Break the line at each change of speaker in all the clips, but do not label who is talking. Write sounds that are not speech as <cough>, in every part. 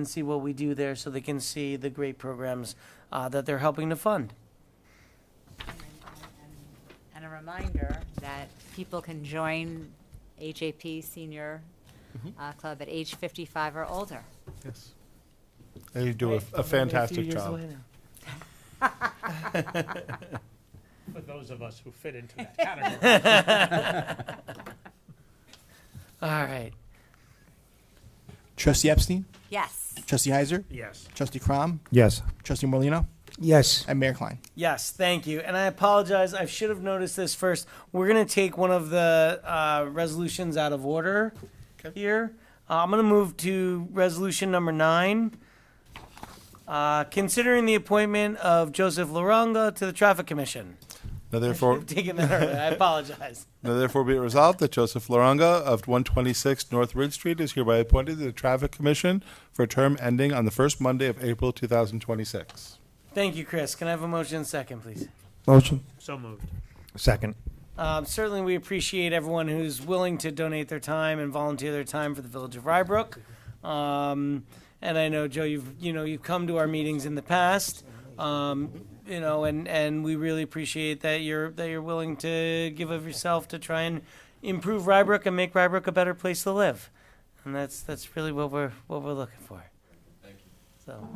and see what we do there so they can see the great programs uh, that they're helping to fund.
And a reminder that people can join HAP Senior uh, Club at age 55 or older.
Yes. They do a, a fantastic job.
For those of us who fit into <laughs> that category.
All right.
Trustee Epstein,
Yes.
Trustee Heiser,
Yes.
Trustee Crom,
Yes.
Trustee Morlino,
Yes.
and Mayor Klein.
Yes, thank you. And I apologize. I should have noticed this first. We're going to take one of the uh, resolutions out of order here. Uh, I'm going to move to resolution number nine. Uh, considering the appointment of Joseph Laronga to the Traffic Commission. <laughs>
Now therefore,
I've taken that earlier. I apologize.
now therefore be it resolved that Joseph Loranga of 126 North Ridge Street is hereby appointed to the Traffic Commission for a term ending on the first Monday of April 2026.
Thank you, Chris. Can I have a motion and second, please?
Motion.
So moved.
Second.
Um, certainly, we appreciate everyone who's willing to donate their time and volunteer their time for the Village of Rybrook. Um, and I know, Joe, you've you know you've come to our meetings in the past, um, you know, and, and we really appreciate that you're that you're willing to give of yourself to try and improve Rybrook and make Rybrook a better place to live, and that's that's really what we're what we're looking for. Thank you. So,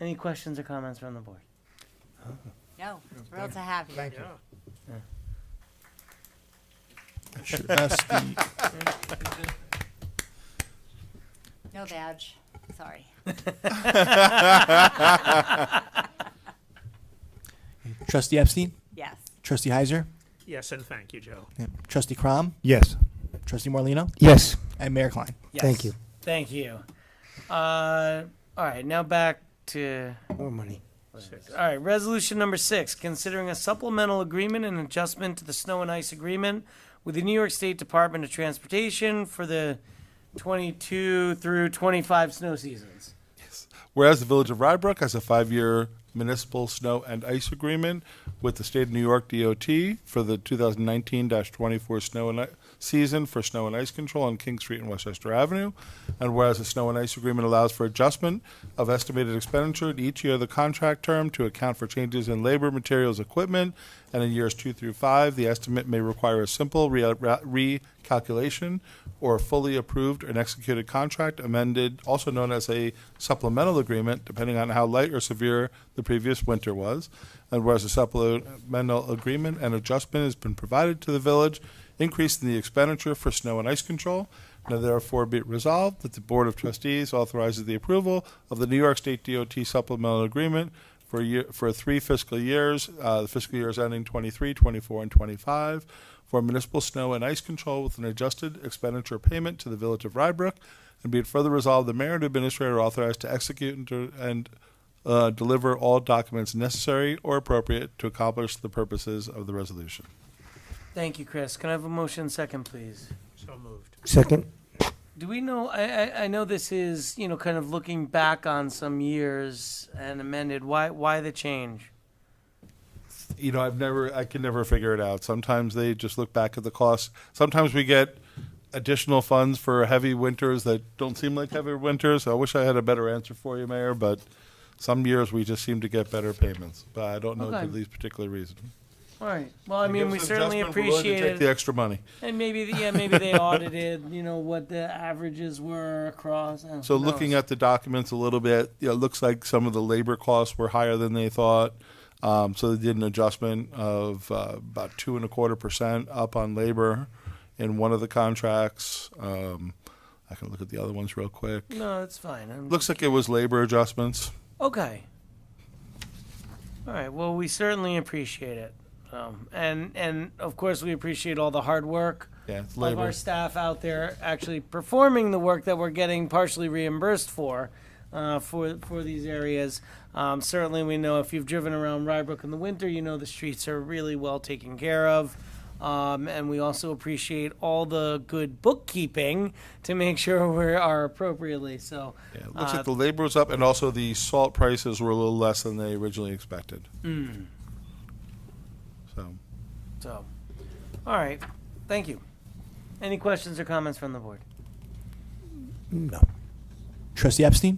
any questions or comments from the board?
No, thrilled to have you. Thank you.
Trustee,
No badge, sorry.
Trustee Epstein,
Yes.
Trustee Heiser,
Yes, and thank you, Joe.
Trustee Crom,
Yes.
Trustee Morlino,
Yes.
and Mayor Klein.
Yes.
Thank you.
Thank you. Uh, all right, now back to
More money.
all right. Resolution number six: considering a supplemental agreement and adjustment to the snow and ice agreement with the New York State Department of Transportation for the 22 through 25 snow seasons.
Whereas the Village of Rybrook has a five-year municipal snow and ice agreement with the state of New York DOT for the 2019-24 snow and i- season for snow and ice control on King Street and Westchester Avenue. And whereas the snow and ice agreement allows for adjustment of estimated expenditure at each year of the contract term to account for changes in labor, materials, equipment, and in years two through five, the estimate may require a simple re- re- recalculation or a fully approved and executed contract amended, also known as a supplemental agreement, depending on how light or severe the previous winter was. And whereas a supplemental agreement and adjustment has been provided to the village, increasing the expenditure for snow and ice control, now therefore be it resolved that the Board of Trustees authorizes the approval of the New York State DOT supplemental agreement for a year, for three fiscal years, uh, the fiscal years ending 23, 24, and 25, for municipal snow and ice control with an adjusted expenditure payment to the Village of Rybrook, and be it further resolved, the mayor and administrator are authorized to execute and, to- and uh, deliver all documents necessary or appropriate to accomplish the purposes of the resolution.
Thank you, Chris. Can I have a motion second, please?
So moved.
Second.
Do we know? I, I, I know this is you know kind of looking back on some years and amended. Why why the change?
you know, I've never, I can never figure it out. Sometimes they just look back at the cost. Sometimes we get additional funds for heavy winters that don't seem like heavy winters. I wish I had a better answer for you, Mayor, but some years we just seem to get better payments. But I don't know
Okay.
for these particular reasons.
All right. Well, Oh, I mean, we certainly appreciate it.
take the extra money.
And maybe the, yeah, maybe they audited, you know, what the averages were across. uh,
So
who
looking
knows?
at the documents a little bit, you know, it looks like some of the labor costs were higher than they thought. Um, so they did an adjustment of uh, about two and a quarter percent up on labor in one of the contracts. Um, I can look at the other ones real quick.
no, it's fine. I'm,
Looks like it was labor adjustments.
okay. All right. Well, we certainly appreciate it, um, and and of course we appreciate all the hard work
Yeah, it's
of our
labor.
staff out there actually performing the work that we're getting partially reimbursed for. Uh, for for these areas, um, certainly we know if you've driven around Rybrook in the winter, you know the streets are really well taken care of, um, and we also appreciate all the good bookkeeping to make <laughs> sure we are appropriately. So,
Yeah, it looks
uh,
like the labor was up, and also the salt prices were a little less than they originally expected.
Hmm.
So.
so, all right, thank you. Any questions or comments from the board?
No.
Trustee Epstein?